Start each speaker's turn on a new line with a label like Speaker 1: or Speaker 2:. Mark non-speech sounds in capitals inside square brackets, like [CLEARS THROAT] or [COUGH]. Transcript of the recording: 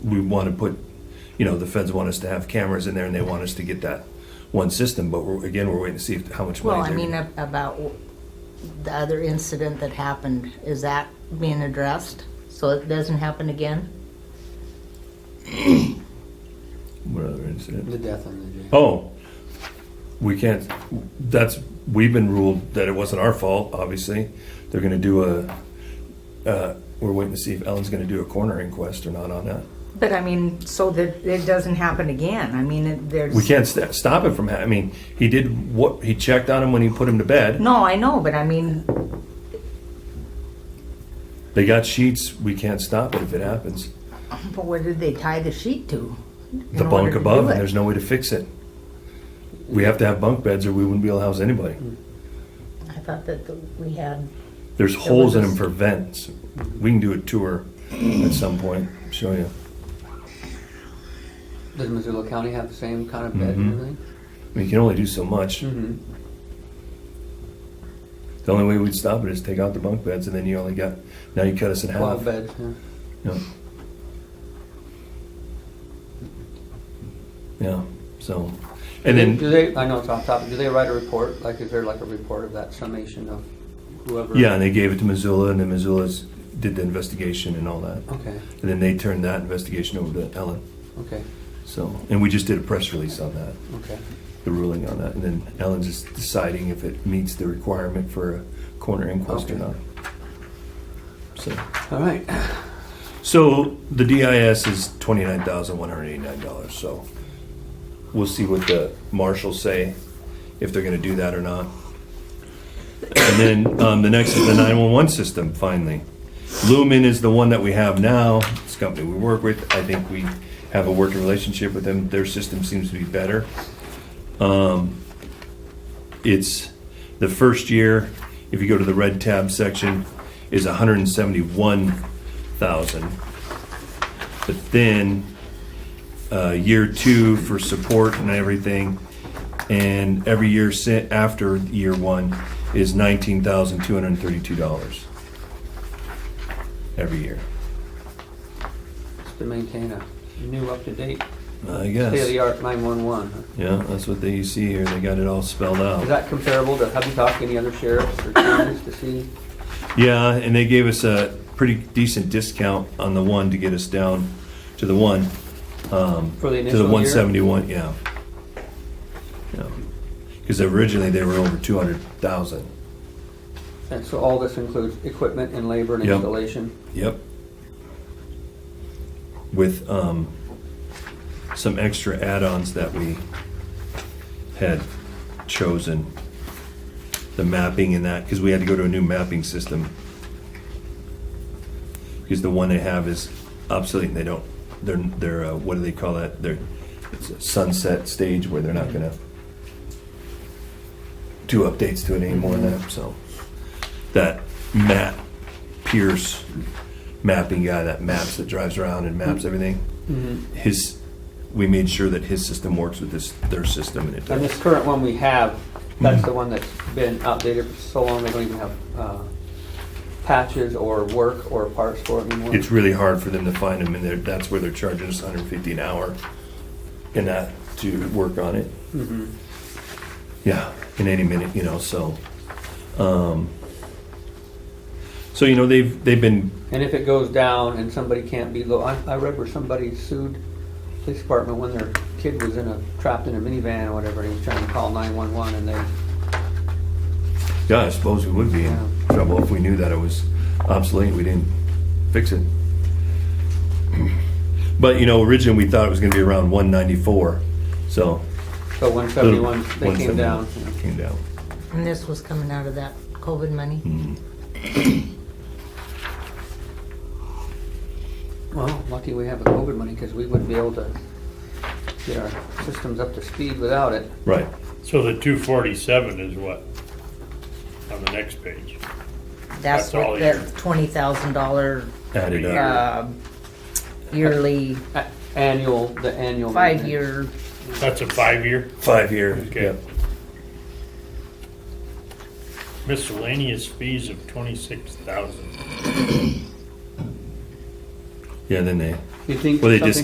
Speaker 1: we want to put, you know, the feds want us to have cameras in there and they want us to get that one system, but we're, again, we're waiting to see if, how much money
Speaker 2: Well,
Speaker 1: they're.
Speaker 2: I mean, ab- about w- the other incident that happened, is that being addressed? So it doesn't happen again? uh,
Speaker 1: What other incident?
Speaker 3: The death on the jail.
Speaker 1: Oh, we can't, that's, we've been ruled that it wasn't our fault, obviously. They're gonna do a, uh, we're waiting to see if Ellen's gonna do a coroner inquest or not on that.
Speaker 2: But I mean, so that it doesn't happen again, I mean, it- there's.
Speaker 1: We can't st- stop it from, ha- I mean, he did what, he checked on him when he put him to bed.
Speaker 2: No, I know, but I mean,
Speaker 1: They got sheets, we can't stop it if it happens.
Speaker 2: but where did they tie the sheet to? in
Speaker 1: The
Speaker 2: order
Speaker 1: bunk
Speaker 2: to do
Speaker 1: above,
Speaker 2: it?
Speaker 1: and there's no way to fix it. We have to have bunk beds or we wouldn't be able to house anybody.
Speaker 2: I thought that the- we had,
Speaker 1: There's holes in
Speaker 2: was a-
Speaker 1: them for vents. We can do a tour at some point, show you.
Speaker 3: Does Missoula County have the same kind of bed
Speaker 1: Mhm.
Speaker 3: and everything?
Speaker 1: I mean, you can only do so much.
Speaker 3: Mm-hmm.
Speaker 1: The only way we'd stop it is take out the bunk beds, and then you only got now you cut us in half.
Speaker 3: Twelve beds, yeah.
Speaker 1: Yeah. yeah. So, and
Speaker 3: do
Speaker 1: then
Speaker 3: they? I know it's off topic. Do they write a report? Like, is there like a report of that summation of whoever?
Speaker 1: yeah, and they gave it to Missoula, and then Missoula's did the investigation and all that,
Speaker 3: Okay.
Speaker 1: and then they turned that investigation over to Ellen.
Speaker 3: Okay.
Speaker 1: So, and we just did a press release on that,
Speaker 3: Okay.
Speaker 1: the ruling on that, and then Ellen's just deciding if it meets the requirement for a corner inquest or
Speaker 3: Okay.
Speaker 1: not. So.
Speaker 3: All right. [CLEARS THROAT]
Speaker 1: So the DIS is twenty-nine thousand one hundred eighty-nine dollars, so we'll see what the marshals say, if they're gonna do that or not. And then, um, the next is the nine-one-one system, finally. Lumen is the one that we have now, it's a company we work with, I think we have a working relationship with them, their system seems to be better. Um, it's the first year, if you go to the red tab section, is hundred and seventy-one thousand. But then, uh, year two for support and everything, and every year si- after year one is nineteen thousand two hundred and thirty-two dollars. Every year,
Speaker 3: Just to maintain a new, up-to-date,
Speaker 1: I guess.
Speaker 3: state-of-the-art nine-one-one.
Speaker 1: Yeah, that's what they see here, they got it all spelled out.
Speaker 3: Is that comparable to, have you talked to any other sheriffs or counties to see?
Speaker 1: Yeah, and they gave us a pretty decent discount on the one to get us down to the one. um,
Speaker 3: For
Speaker 1: To
Speaker 3: the initial
Speaker 1: the
Speaker 3: year?
Speaker 1: one seventy-one, yeah. Because originally they were over two hundred thousand.
Speaker 3: And so all this includes equipment and labor and
Speaker 1: Yep.
Speaker 3: installation?
Speaker 1: Yep. With um, some extra add-ons that we had chosen. The mapping and that, because we had to go to a new mapping system. Because the one they have is obsolete and they don't, they're, they're, uh, what do they call that? They're it's a sunset stage where they're not gonna do updates to it anymore and that, so. That Matt Pierce mapping guy that maps, that drives around and maps everything. His, we made sure that his system works with this, their system and it
Speaker 3: And
Speaker 1: does.
Speaker 3: this current one we have, that's
Speaker 1: Mm-hmm.
Speaker 3: the one that's been outdated for so long, they don't even have uh, patches or work or parts for it anymore?
Speaker 1: It's really hard for them to find them and they're, that's where they're charging us hundred and fifty an hour and that to work on it.
Speaker 3: Mm-hmm.
Speaker 1: Yeah, in any minute, you know, so, um, so, you know, they've, they've been
Speaker 3: And if it goes down and somebody can't be, lo- I I read where somebody sued police department when their kid was in a, trapped in a minivan or whatever, and he was trying to call 911 and they
Speaker 1: Yeah, I suppose we would be
Speaker 3: Yeah.
Speaker 1: in trouble if we knew that it was obsolete, and we didn't fix it. But, you know, originally, we thought it was gonna be around one ninety-four, so.
Speaker 3: So
Speaker 1: little-
Speaker 3: 171, they came
Speaker 1: 171
Speaker 3: down.
Speaker 1: Came down.
Speaker 2: and this was coming out of that COVID money?
Speaker 1: Hmm.
Speaker 3: Well, lucky we have the COVID money because we wouldn't be able to get our systems up to speed without it.
Speaker 1: Right,
Speaker 4: So the two forty-seven is what? On the next page.
Speaker 2: That's
Speaker 4: That's all
Speaker 2: what that
Speaker 4: year.
Speaker 2: twenty thousand dollar,
Speaker 1: added up.
Speaker 2: uh, yearly,
Speaker 3: A- Annual, the annual. maintenance.
Speaker 2: five-year,
Speaker 4: That's a five-year
Speaker 1: Five year,
Speaker 4: Okay.
Speaker 1: yeah.
Speaker 4: miscellaneous fees of twenty-six thousand.
Speaker 1: Yeah, then they,
Speaker 3: You think
Speaker 1: Well, they
Speaker 3: something